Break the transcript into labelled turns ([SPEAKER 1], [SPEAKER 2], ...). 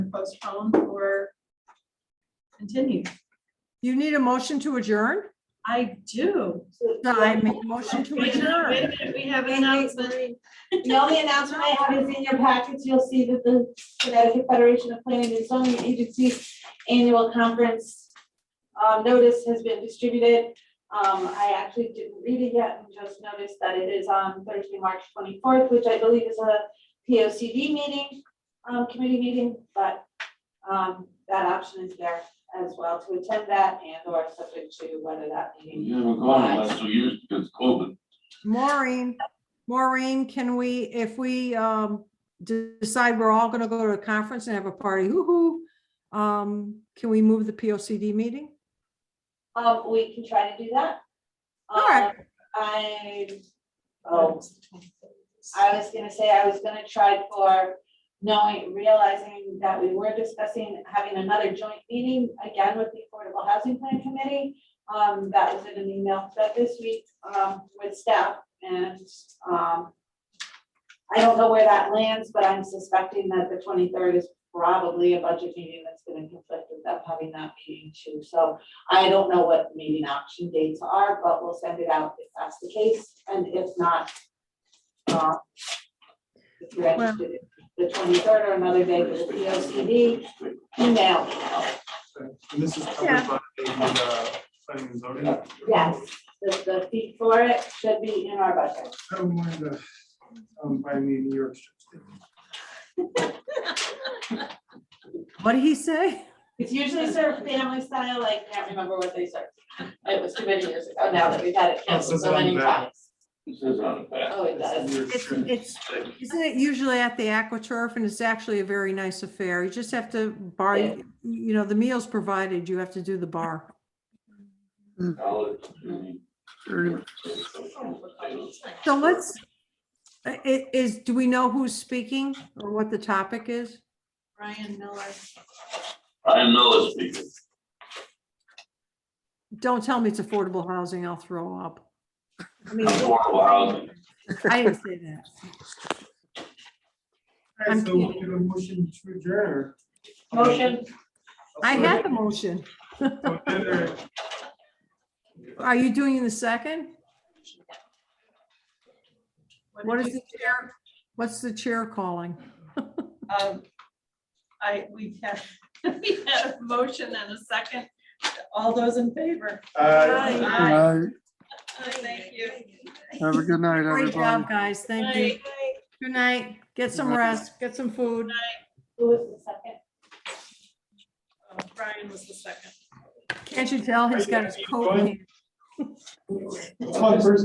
[SPEAKER 1] postpone or continue.
[SPEAKER 2] You need a motion to adjourn?
[SPEAKER 1] I do.
[SPEAKER 2] I make a motion to
[SPEAKER 1] Wait a minute, wait a
[SPEAKER 2] adjourn.
[SPEAKER 1] minute, We have an
[SPEAKER 3] Wait, wait,
[SPEAKER 1] announcement.
[SPEAKER 3] wait. The only announcement I have is in your packets, you'll see that the Connecticut Federation of Planning and Zoning Agency Annual Conference um, notice has been distributed. Um, I actually didn't read it yet and just noticed that it is on Thursday, March twenty-fourth, which I believe is a P O C D meeting, um, committee meeting, but um, that option is there as well to attend that and or subject to whether that meeting.
[SPEAKER 4] You haven't gone in the last two years because COVID.
[SPEAKER 2] Maureen, Maureen, can we, if we um de- decide we're all gonna go to a conference and have a party, hoo-hoo, um, can we move the P O C D meeting?
[SPEAKER 3] Um, we can try to do that.
[SPEAKER 2] All right.
[SPEAKER 3] Um, I, oh, I was gonna say, I was gonna try for knowing, realizing that we were discussing having another joint meeting again with the Affordable Housing Plan Committee. Um, that was in an email that this week, um, with staff and, um, I don't know where that lands, but I'm suspecting that the twenty-third is probably a budget meeting that's gonna conflict with them having that meeting too. So I don't know what meeting option dates are, but we'll send it out if that's the case, and if not, uh, if you're
[SPEAKER 2] Well-
[SPEAKER 3] interested, the twenty-third or another day with the P O C D, email,
[SPEAKER 5] And this is covered by the uh, planning and zoning.
[SPEAKER 3] yes, the, the fee for it should be in our budget.
[SPEAKER 5] I don't mind the, um, by me, New York. Strip.
[SPEAKER 2] What did he say?
[SPEAKER 3] It's usually served family style, I can't remember what they served. It was too many years ago now that we've had it
[SPEAKER 5] Oh,
[SPEAKER 3] canceled
[SPEAKER 5] so
[SPEAKER 3] so many
[SPEAKER 5] it's on that.
[SPEAKER 3] times.
[SPEAKER 4] It says on the back.
[SPEAKER 3] Oh, it does.
[SPEAKER 5] New York
[SPEAKER 2] It's,
[SPEAKER 5] Strip.
[SPEAKER 2] it's, isn't it usually at the AquaTurf and it's actually a very nice affair. You just have to bar,
[SPEAKER 3] Yeah.
[SPEAKER 2] you know, the meals provided, you have to do the bar.
[SPEAKER 4] College, community.
[SPEAKER 2] So let's, i- i- is, do we know who's speaking or what the topic is?
[SPEAKER 1] Brian Miller.
[SPEAKER 4] I know it's people.
[SPEAKER 2] Don't tell me it's affordable housing, I'll throw up. I mean,
[SPEAKER 4] Affordable housing.
[SPEAKER 2] I didn't say that.
[SPEAKER 5] All right,
[SPEAKER 2] I'm
[SPEAKER 5] so we get a motion to adjourn.
[SPEAKER 3] Motion,
[SPEAKER 2] I had the motion.
[SPEAKER 5] So then there-
[SPEAKER 2] Are you doing the second? What
[SPEAKER 1] did
[SPEAKER 2] is
[SPEAKER 1] you-
[SPEAKER 2] the chair? What's the chair calling?
[SPEAKER 1] Um, I, we have, we had a motion and a second. All those in favor?
[SPEAKER 5] Uh,
[SPEAKER 6] Aye.
[SPEAKER 1] Thank you.
[SPEAKER 6] Have a good night,
[SPEAKER 2] Great
[SPEAKER 6] everybody.
[SPEAKER 2] job, guys. Thank you. Good night. Get some
[SPEAKER 6] Good night.
[SPEAKER 2] rest, get some food.
[SPEAKER 3] who was the second?
[SPEAKER 1] Uh, Brian was the second.
[SPEAKER 2] Can't you tell he's got his coat in hand?
[SPEAKER 5] it's my first